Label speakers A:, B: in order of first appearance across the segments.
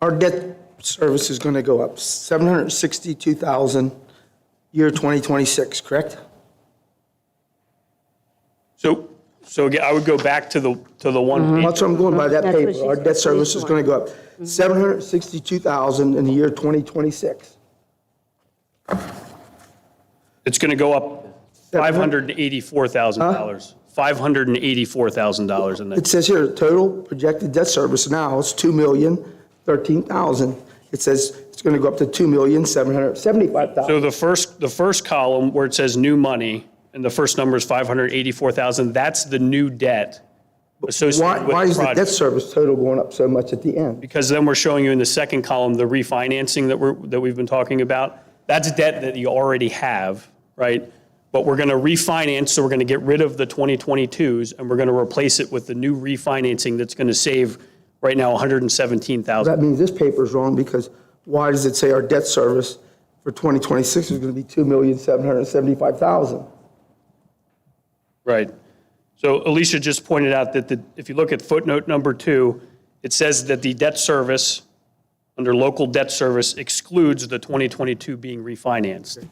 A: Our debt service is going to go up 762,000 year 2026, correct?
B: So, so again, I would go back to the, to the one,
A: That's what I'm going by that
C: That's what
A: paper. Our
C: she said, Mm-hmm.
A: debt service is
C: 3.1.
A: going to go up 762,000 in the year 2026.
B: it's going to go up $584,000. $584,000 in
A: It
B: the,
A: says here, total projected debt service now is 2,013,000. It says it's going to go up to 2,775,000.
B: so the first, the first column where it says new money, and the first number is 584,000, that's the new debt
A: Why,
B: associated
A: why
B: with
A: is
B: the
A: the debt
B: project.
A: service total going up so much at the end?
B: Because then we're showing you in the second column, the refinancing that we're, that we've been talking about. That's debt that you already have, right? But we're going to refinance, so we're going to get rid of the 2022s, and we're going to replace it with the new refinancing that's going to save, right now, 117,000.
A: That means this paper is wrong because why does it say our debt service for 2026 is going to be 2,775,000?
B: Right. So Alicia just pointed out that the, if you look at footnote number two, it says that the debt service, under local debt service, excludes the 2022 being refinanced.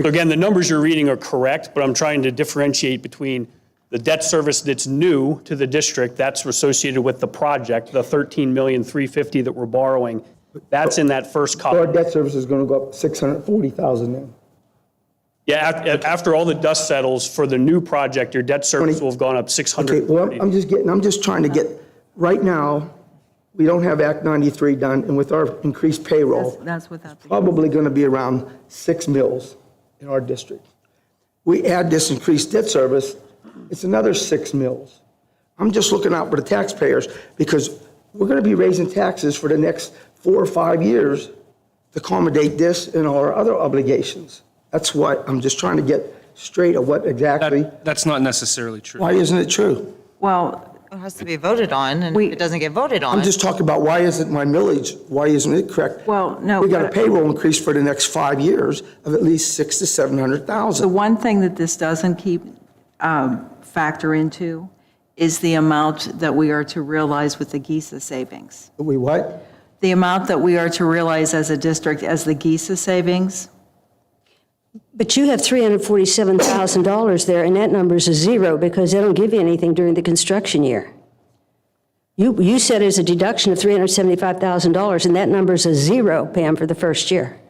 B: So again, the numbers you're reading are correct, but I'm trying to differentiate between the debt service that's new to the district, that's associated with the project, the 13,350 that we're borrowing, that's in that first
A: Our
B: column.
A: debt service is going to go up 640,000 then.
B: Yeah, af- after all the dust settles for the new project, your debt service will have gone up
A: Okay,
B: 600.
A: well, I'm- I'm just getting, I'm just trying to get, right now, we don't have Act 93 done, and with our increased
C: That's-
A: payroll,
C: That's without the,
A: probably going to be around six mills in our district. We add this increased debt service, it's another six mills. I'm just looking out for the taxpayers, because we're going to be raising taxes for the next four or five years to accommodate this and our other obligations. That's what, I'm just trying to get straight of what exactly,
D: That, that's not necessarily true.
A: why isn't it true?
C: well,
E: It has to be voted on, and if
C: We-
E: it doesn't get voted on.
A: I'm just talking about why isn't my millage, why isn't it correct?
C: Well, no,
A: We got a
C: but-
A: payroll increase for the next five years of at least six to seven hundred
C: the
A: thousand.
C: one thing that this doesn't keep, um, factor into is the amount that we are to realize with the GISA savings.
A: We what?
C: The amount that we are to realize as a district as the GISA savings,
F: But you have $347,000 there, and that number's a zero because they don't give you anything during the construction year. You, you said it's a deduction of $375,000, and that number's a zero, Pam, for the first year.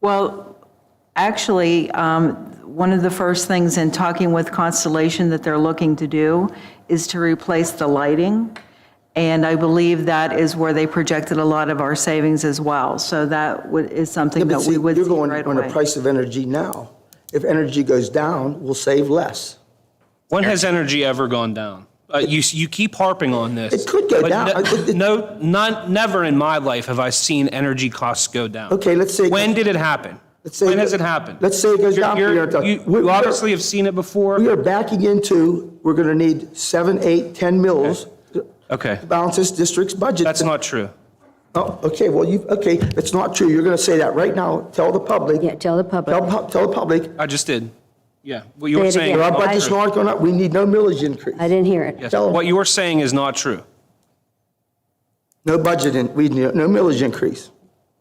C: Well, actually, um, one of the first things in talking with Constellation that they're looking to do is to replace the lighting, and I believe that is where they projected a lot of our savings as well. So that would- is something
A: But
C: that
A: see,
C: we
A: you're
C: would see
A: going
C: right
A: on the
C: away.
A: price of energy now. If energy goes down, we'll save less.
D: When has energy ever gone down? Uh, you, you keep harping on this.
A: It could go
D: but
A: down.
D: no-
A: I- it- it-
D: No, not, never in my life have I seen energy costs go down.
A: Okay, let's say-
D: When did it happen?
A: Let's say-
D: When has it happened?
A: Let's say it goes
D: You're-
A: down for
D: you're-
A: your entire-
D: You
A: we- we
D: you
A: are-
D: obviously have seen it
A: We
D: before.
A: are backing into, we're gonna need seven, eight, 10 mills to
D: Okay,
A: balance this district's budget.
D: that's not true.
A: Oh, okay, well, you, okay, it's not true. You're gonna say that right now. Tell the public.
F: Yeah, tell the public.
A: Tell, pub- tell the public,
D: I just did. Yeah, what you were
F: Say it
D: saying.
F: again.
A: our budget's
D: is not
A: not going up, we need no millage increase.
F: I didn't hear it.
D: true.
A: tell 'em.
D: What you were saying is not true.
A: No budget, in- we need no millage increase.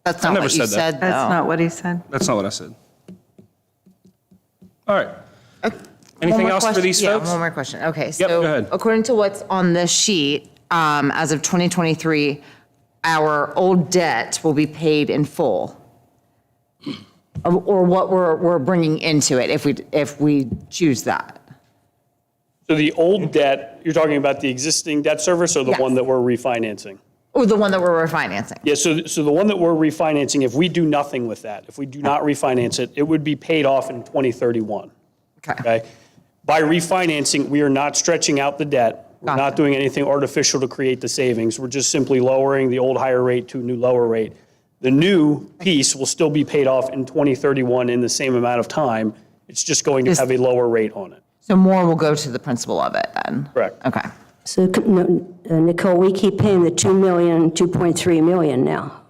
E: That's not
D: never
E: what you
D: said that.
E: said,
C: That's
E: though.
C: not what he said.
D: That's not what I said. All right. Anything
E: One more
D: else for
E: question-
D: these
E: yeah,
D: folks?
E: One more question. Okay, so.
D: Yep, go ahead.
E: According to what's on this sheet, um, as of 2023, our old debt will be paid in full. Or- Or what we're, we're bringing into it if we, if we choose that.
B: So the old debt, you're talking about the existing debt service or the
E: Yes.
B: one that we're refinancing?
E: Or the one that we're refinancing.
B: Yeah, so, so the one that we're refinancing, if we do nothing with that, if we do not refinance it, it would be paid off in 2031,
E: Okay.
B: okay? By refinancing, we are not stretching out the debt. We're not
E: Gotcha.
B: doing anything artificial to create the savings. We're just simply lowering the old higher rate to a new lower rate. The new piece will still be paid off in 2031 in the same amount of time. It's just going to
E: Just-
B: have a lower rate on it.
E: So more will go to the principal of it then?
B: Correct.
E: Okay.
F: So no, uh, Nicole, we keep paying the 2 million, 2.3 million now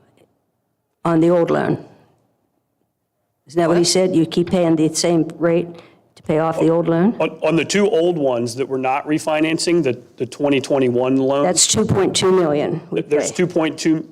F: on the old loan. Isn't that what he said? You keep paying the same rate to pay off the old loan?
B: On, on the two old ones that we're not refinancing, the, the 2021 loan,
F: That's 2.2 million. we
B: there's
F: pay.
B: 2.2,